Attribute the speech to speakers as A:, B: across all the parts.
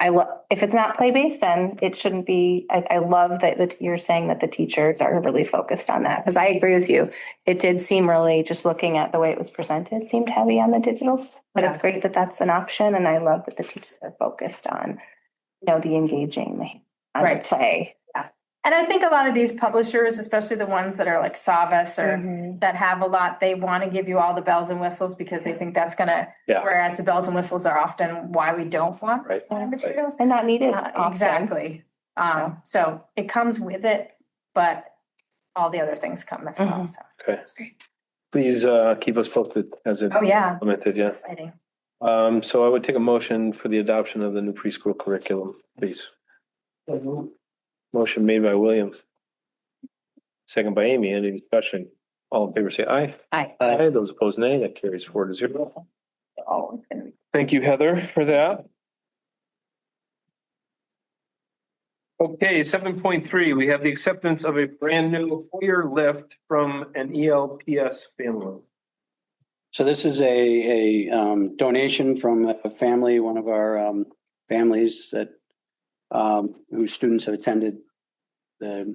A: I love, if it's not play-based, then it shouldn't be, I, I love that, that you're saying that the teachers are really focused on that, because I agree with you. It did seem really, just looking at the way it was presented, seemed heavy on the digital, s- but it's great that that's an option, and I love that the teachers are focused on, you know, the engaging, the on the
B: Right.
A: play.
B: And I think a lot of these publishers, especially the ones that are like Savas or
A: Mm-hmm.
C: Mm-hmm.
B: that have a lot, they want to give you all the bells and whistles because they think that's gonna,
C: Yeah.
B: whereas the bells and whistles are often why we don't want
C: Right.
B: our materials.
A: And not needed
B: Uh,
A: often.
B: Exactly. Um, so it comes with it, but all the other things come as well,
A: Mhm.
B: so.
C: Mm-hmm. Okay.
B: That's great.
C: Please uh, keep us posted as it
B: Oh, yeah,
C: implemented, yes.
B: exciting.
C: Um, so I would take a motion for the adoption of the new preschool curriculum, please. Motion made by Williams. Second by Amy, any discussion? All in favor, say aye.
A: Aye.
C: Aye, those opposed nay, that carries four to zero.
A: Oh, it's gonna be-
C: Thank you, Heather, for that. Okay, seven point three, we have the acceptance of a brand new four-year lift from an E ELPS family.
D: So this is a, a um, donation from a family, one of our um, families that, um, whose students have attended the,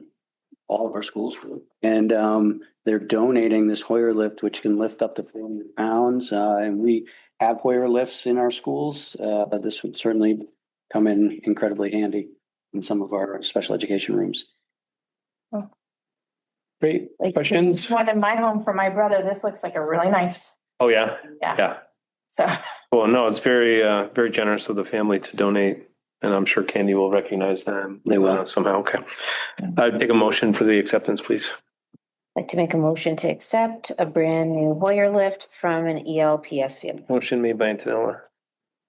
D: all of our schools. And um, they're donating this Hoyer lift, which can lift up to four hundred pounds. Uh, And we have Hoyer lifts in our schools, uh, but this would certainly come in incredibly handy in some of our special education rooms.
C: Great,
B: Like-
C: questions?
B: One in my home for my brother, this looks like a really nice,
C: Oh, yeah,
B: yeah,
C: yeah.
B: so.
C: Well, no, it's very, uh, very generous of the family to donate, and I'm sure Candy will recognize them.
D: They will.
C: uh, Somehow, okay. I'd take a motion for the acceptance, please.
E: I'd Like to make a motion to accept a brand new Hoyer lift from an E ELPS family.
C: Motion made by Antonella,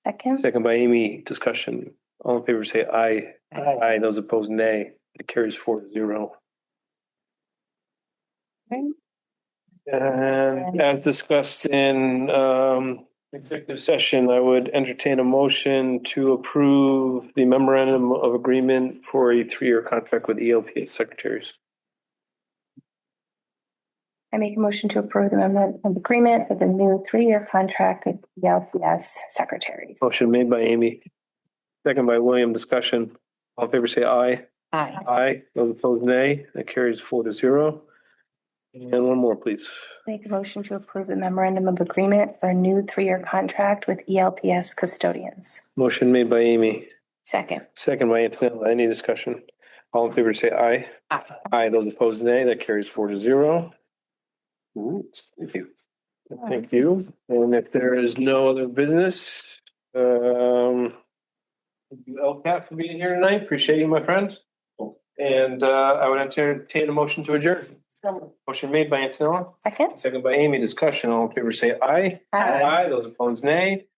A: Second,
C: second by Amy, discussion. All in favor, say aye.
E: Aye.
C: Those opposed, nay. It carries four to zero. And as discussed in, um, executive session, I would entertain a motion to approve the memorandum of agreement for a three-year contract with E ELPS secretaries.
A: I make a motion to approve the amendment of agreement for the new three-year contract with ELCS secretaries.
C: Motion made by Amy, second by William, discussion. All in favor, say aye.
E: Aye.
C: Aye. Those opposed, nay. That carries four to zero. And one more, please.
A: Make a motion to approve the memorandum of agreement for a new three-year contract with E ELPS custodians.
C: Motion made by Amy,
E: Second.
C: second by Antonella. Any discussion? All in favor, say aye.
E: Aye.
C: Aye. Those opposed, nay. That carries four to zero.
D: All right.
C: Thank you. Thank you. And if there is no other business, um, thank you, LCAT, for being here tonight. Appreciate you, my friends. And, uh, I would entertain a motion to adjourn. Motion made by Antonella,
A: Second?
C: second by Amy. Discussion. All in favor, say aye.
A: Aye.
C: Those opposed, nay.